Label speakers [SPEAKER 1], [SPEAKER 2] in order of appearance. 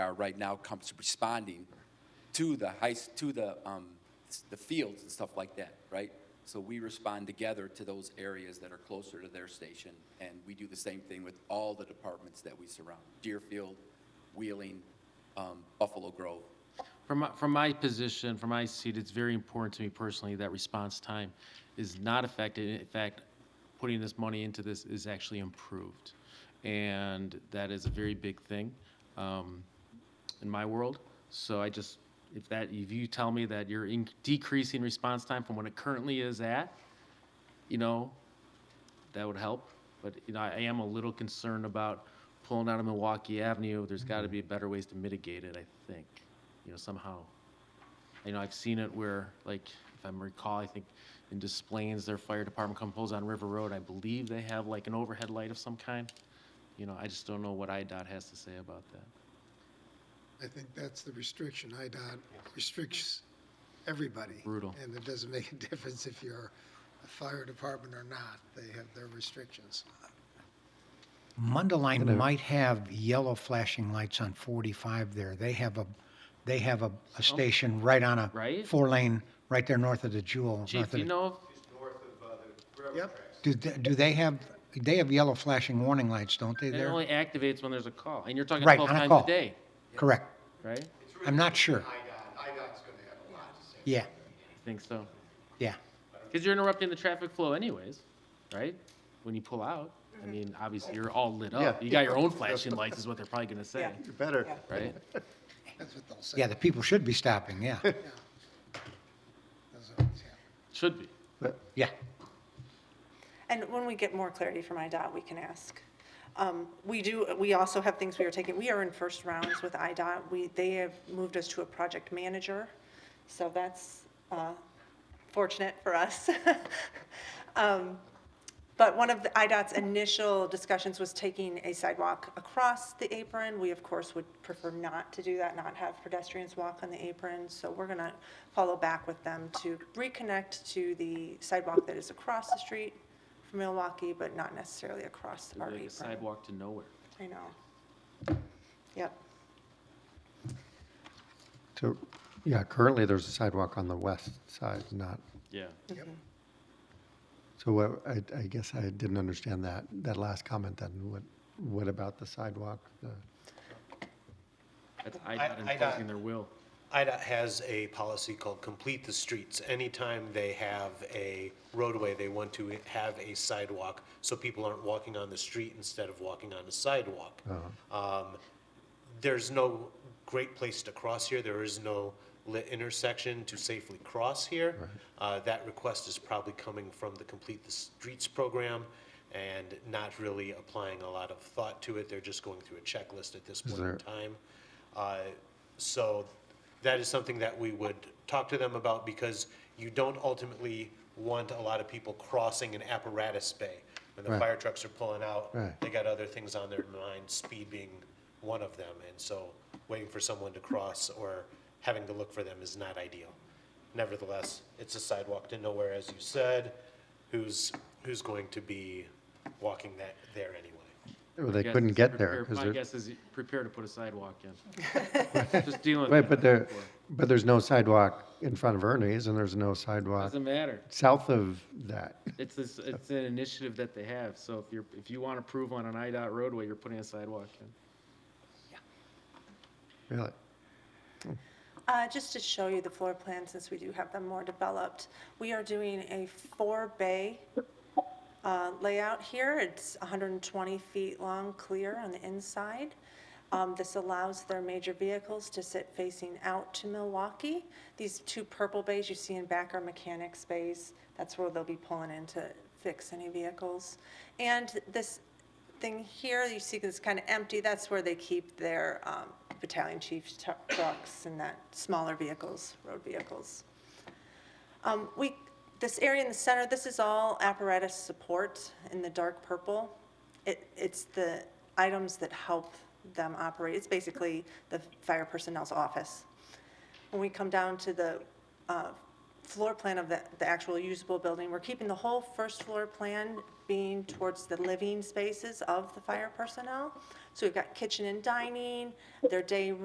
[SPEAKER 1] are right now comes to responding to the high, s- to the, um, s- the fields and stuff like that, right? So we respond together to those areas that are closer to their station, and we do the same thing with all the departments that we surround, Deerfield, Wheeling, um, Buffalo Grove.
[SPEAKER 2] From my, from my position, from my seat, it's very important to me personally that response time is not affected. In fact, putting this money into this is actually improved. And that is a very big thing um, in my world. So I just, if that, if you tell me that you're in, decreasing response time from what it currently is at, you know, that would help. But, you know, I am a little concerned about pulling out of Milwaukee Avenue. There's got to
[SPEAKER 3] Mm-hmm.
[SPEAKER 2] be better ways to mitigate it, I think, you know, somehow. You know, I've seen it where, like, if I recall, I think in Des Plaines, their fire department comes pulls on River Road. I believe they have like an overhead light of some kind. You know, I just don't know what IDOT has to say about that.
[SPEAKER 4] I think that's the restriction. IDOT restricts everybody.
[SPEAKER 2] Brutal.
[SPEAKER 4] And it doesn't make a difference if you're a fire department or not. They have their restrictions.
[SPEAKER 3] Mundaline might have yellow flashing lights on 45 there. They have a, they have a, a station right on a
[SPEAKER 2] Oh. Right?
[SPEAKER 3] four lane, right there north of the Jewel.
[SPEAKER 2] Chief,
[SPEAKER 3] north
[SPEAKER 2] do
[SPEAKER 3] of
[SPEAKER 2] you
[SPEAKER 3] the-
[SPEAKER 2] know?
[SPEAKER 4] Yep.
[SPEAKER 3] Do, they- do they have, they have yellow flashing warning lights, don't they
[SPEAKER 2] if- It
[SPEAKER 3] there?
[SPEAKER 2] only activates when there's a call, and you're talking
[SPEAKER 3] Right,
[SPEAKER 2] 12
[SPEAKER 3] on a
[SPEAKER 2] times
[SPEAKER 3] call.
[SPEAKER 2] a day,
[SPEAKER 3] Correct.
[SPEAKER 2] right?
[SPEAKER 3] I'm not sure. Yeah,
[SPEAKER 2] I think so.
[SPEAKER 3] yeah.
[SPEAKER 2] Because you're interrupting the traffic flow anyways, right? When you pull out, I mean, obviously, you're all lit up.
[SPEAKER 5] Yeah.
[SPEAKER 2] You got your own flashing lights is what they're probably gonna say,
[SPEAKER 5] You better.
[SPEAKER 2] right?
[SPEAKER 4] That's what they'll say.
[SPEAKER 3] Yeah, the people should be stopping, yeah,
[SPEAKER 4] That's what it's happening.
[SPEAKER 2] Should be.
[SPEAKER 3] yeah.
[SPEAKER 6] And when we get more clarity from IDOT, we can ask. Um, We do, we also have things we are taking, we are in first rounds with IDOT. We, they have moved us to a project manager, so that's uh, fortunate for us. Um, But one of the IDOT's initial discussions was taking a sidewalk across the apron. We, of course, would prefer not to do that, not have pedestrians walk on the apron. So we're going to follow back with them to reconnect to the sidewalk that is across the street from Milwaukee, but not necessarily across
[SPEAKER 2] It'd
[SPEAKER 6] our
[SPEAKER 2] be like a
[SPEAKER 6] apron.
[SPEAKER 2] sidewalk to nowhere.
[SPEAKER 6] I know. Yep.
[SPEAKER 5] To, yeah, currently there's a sidewalk on the west side, not,
[SPEAKER 2] Yeah.
[SPEAKER 5] so what, I, I guess I didn't understand that, that last comment then. What, what about the sidewalk? The-
[SPEAKER 2] That's
[SPEAKER 7] I-
[SPEAKER 2] IDOT
[SPEAKER 7] I-
[SPEAKER 2] enforcing their will.
[SPEAKER 7] IDOT has a policy called Complete the Streets. Anytime they have a roadway, they want to have a sidewalk, so people aren't walking on the street instead of walking on a sidewalk. Um, There's no great place to cross here, there is no lit intersection to safely cross here. Uh, That request is probably coming from the Complete the Streets program and not really applying a lot of thought to it, they're just going through a checklist at this point in
[SPEAKER 5] there-
[SPEAKER 7] time. Uh, So that is something that we would talk to them about because you don't ultimately want a lot of people crossing an apparatus bay. When the
[SPEAKER 5] Right.
[SPEAKER 7] fire trucks are pulling out,
[SPEAKER 5] Right.
[SPEAKER 7] they got other things on their mind, speed being one of them. And so waiting for someone to cross or having to look for them is not ideal. Nevertheless, it's a sidewalk to nowhere, as you said. Who's, who's going to be walking that there anyway?
[SPEAKER 5] Well, They
[SPEAKER 2] Guess
[SPEAKER 5] couldn't
[SPEAKER 2] is
[SPEAKER 5] get there.
[SPEAKER 2] prepare-
[SPEAKER 5] 'cause
[SPEAKER 2] My
[SPEAKER 5] there-
[SPEAKER 2] guess is you prepare to put a sidewalk in. Just dealing with
[SPEAKER 5] Right,
[SPEAKER 2] that.
[SPEAKER 5] but there, but there's no sidewalk in front of Ernie's and there's no sidewalk
[SPEAKER 2] Doesn't matter.
[SPEAKER 5] south of that.
[SPEAKER 2] It's this, it's an initiative that they have, so if you're, if you want to prove on an IDOT roadway, you're putting a sidewalk in.
[SPEAKER 5] Really?
[SPEAKER 6] Uh, Just to show you the floor plan, since we do have them more developed, we are doing a four-bay uh, layout here. It's 120 feet long, clear on the inside. Um, This allows their major vehicles to sit facing out to Milwaukee. These two purple bays you see in back are mechanics bays. That's where they'll be pulling in to fix any vehicles. And this thing here, you see it's kind of empty, that's where they keep their um, battalion chief's tu- trucks and that smaller vehicles, road vehicles. Um, We, this area in the center, this is all apparatus support in the dark purple. It, it's the items that help them operate. It's basically the fire personnel's office. When we come down to the uh, floor plan of the, the actual usable building, we're keeping the whole first floor plan being towards the living spaces of the fire personnel. So we've got kitchen and dining, their day